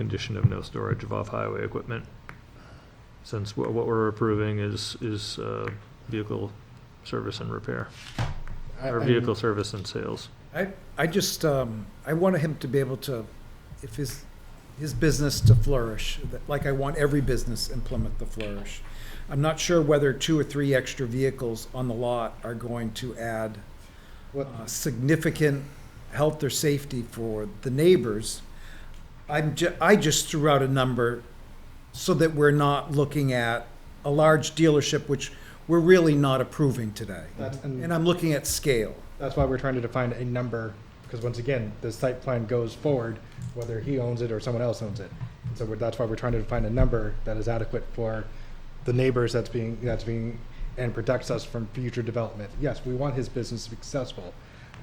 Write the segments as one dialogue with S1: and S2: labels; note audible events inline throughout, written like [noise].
S1: condition of no storage of off-highway equipment. Since wha- what we're approving is, is uh, vehicle service and repair,
S2: I-
S1: or
S2: I-
S1: vehicle service and sales.
S2: I, I just, um, I want him to be able to, if his, his business to flourish, that- like I want every business in Plymouth to flourish. I'm not sure whether two or three extra vehicles on the lot are going to add
S3: What-
S2: uh, significant health or safety for the neighbors. I'm ju, I just threw out a number so that we're not looking at a large dealership, which we're really not approving today.
S3: That's,
S2: And
S3: and
S2: I'm looking at scale.
S3: that's why we're trying to define a number, because once again, the site plan goes forward, whether he owns it or someone else owns it. So we're, that's why we're trying to define a number that is adequate for the neighbors that's being, that's being, and protects us from future development. Yes, we want his business to be successful,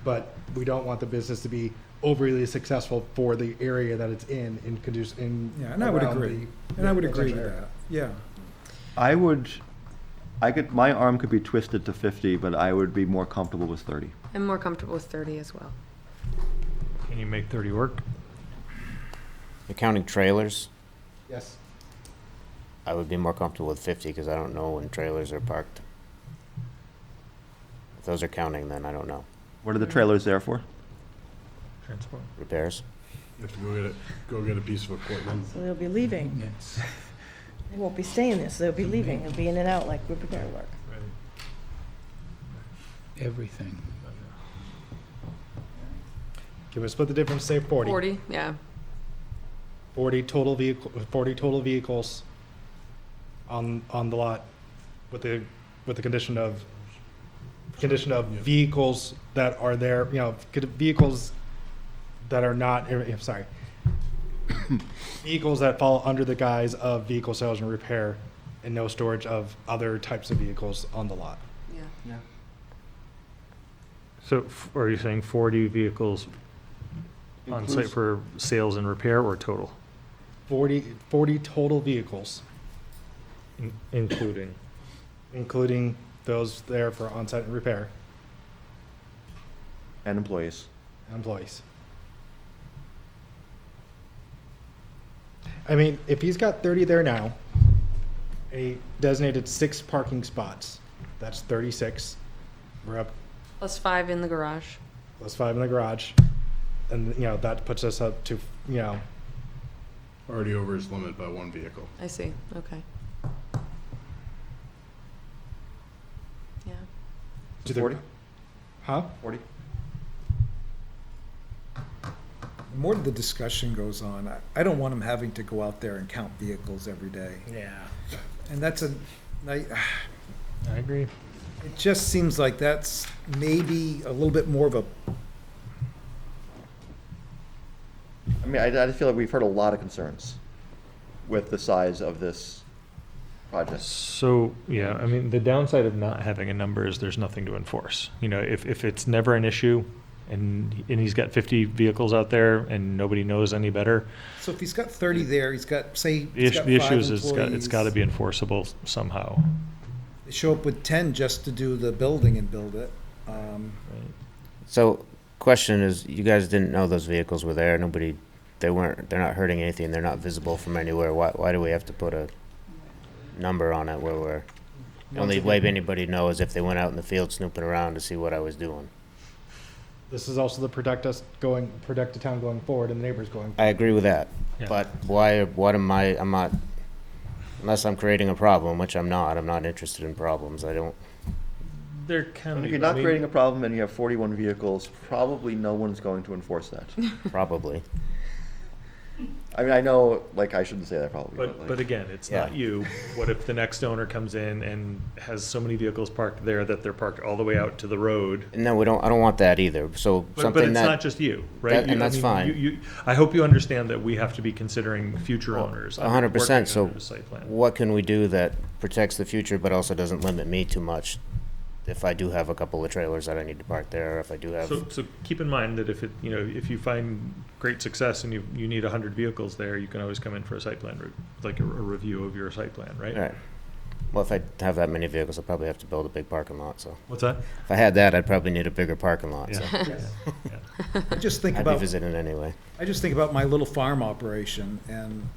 S3: but we don't want the business to be overly successful for the area that it's in, in conduce, in.
S2: Yeah, and I would
S3: around
S2: agree.
S3: the-
S2: And I would
S3: the
S2: agree with
S3: area.
S2: that, yeah.
S4: I would, I could, my arm could be twisted to 50, but I would be more comfortable with 30.
S5: I'm more comfortable with 30 as well.
S1: Can you make 30 work?
S6: You're counting trailers.
S3: Yes,
S6: I would be more comfortable with 50 because I don't know when trailers are parked. If those are counting, then I don't know.
S4: What are
S1: Mm-hmm.
S4: the trailers there for?
S1: Transport.
S6: Repairs?
S7: You have to go get a, go get a piece of equipment.
S8: So they'll be leaving. They won't be staying there, so they'll be leaving. They'll be in and out like repair work.
S9: everything.
S3: can we split the difference, say forty?
S5: 40, yeah.
S3: 40 total vehicle, 40 total vehicles on, on the lot with the, with the condition of, condition of vehicles that are there, you know, could- vehicles that are not, eh, eh,
S1: [coughs]
S3: sorry. Vehicles that fall under the guise of vehicle sales and repair and no storage of other types of vehicles on the lot.
S5: Yeah.
S1: So f- are you saying 40 vehicles on site for sales and repair or total?
S3: 40, 40 total vehicles,
S1: In- Including.
S3: including those there for on-site and repair
S4: And employees.
S3: and employees. I mean, if he's got thirty there now, and he designated six parking spots, that's thirty-six. We're up
S5: Plus five in the garage.
S3: plus five in the garage, and you know that puts us up to you know
S7: Already over his limit by one vehicle.
S5: I see. Okay. Yeah.
S3: to the
S4: 40?
S3: Huh?
S4: 40?
S2: The more the discussion goes on, I, I don't want him having to go out there and count vehicles every day.
S3: Yeah,
S2: And that's a, I, [sighs]
S3: I agree.
S2: it just seems like that's maybe a little bit more of a,
S4: I mean, I, I feel like we've heard a lot of concerns with the size of this project.
S1: So, yeah, I mean, the downside of not having a number is there's nothing to enforce. You know, if, if it's never an issue and, and he's got 50 vehicles out there and nobody knows any better,
S2: so if he's got thirty there, he's got, say,
S1: the
S2: he's
S1: issue,
S2: got
S1: the issue
S2: five
S1: is it's got, it's got to
S2: employees.
S1: be enforceable somehow.
S2: They Show up with ten just to do the building and build it. Um,
S6: So, question is, you guys didn't know those vehicles were there. Nobody, they weren't. They're not hurting anything. They're not visible from anywhere. Why? Why do we have to put a number on it where we're the only way anybody knows if they went out in the field snooping around to see what I was doing?
S3: This is also the protect us going, protect the town going forward and the neighbors going.
S6: I agree with that.
S1: Yeah.
S6: But why, what am I, I'm not, unless I'm creating a problem, which I'm not, I'm not interested in problems. I don't,
S1: There can
S4: If you're not creating a problem and you have 41 vehicles, probably no one's going to enforce that.
S6: probably. [laughs]
S4: I mean, I know, like, I shouldn't say that probably, but
S1: But,
S4: like.
S1: but again, it's
S6: Yeah.
S1: not you. What if the next owner comes in and has so many vehicles parked there that they're parked all the way out to the road?
S6: No, we don't, I don't want that either. So
S1: But, but
S6: something
S1: it's not
S6: that,
S1: just you, right?
S6: that-
S1: You-
S6: and
S1: I
S6: that's
S1: mean,
S6: fine.
S1: You, you, I hope you understand that we have to be considering future owners.
S6: a hundred percent,
S1: working
S6: so
S1: under the site plan.
S6: what can we do that protects the future but also doesn't limit me too much? If I do have a couple of trailers that I need to park there, or if I do
S1: So,
S6: have,
S1: so keep in mind that if it, you know, if you find great success and you, you need a hundred vehicles there, you can always come in for a site plan, re- like a, a review of your site plan, right?
S6: alright, Well, if I have that many vehicles, I'll probably have to build a big parking lot, so.
S1: What's that?
S6: If I had that, I'd probably need a bigger parking lot, so.
S1: Yeah. [laughs]
S2: I just [laughs] think
S6: I'd be
S2: about,
S3: [laughs]
S6: visiting anyway.
S2: I just think about my little farm operation and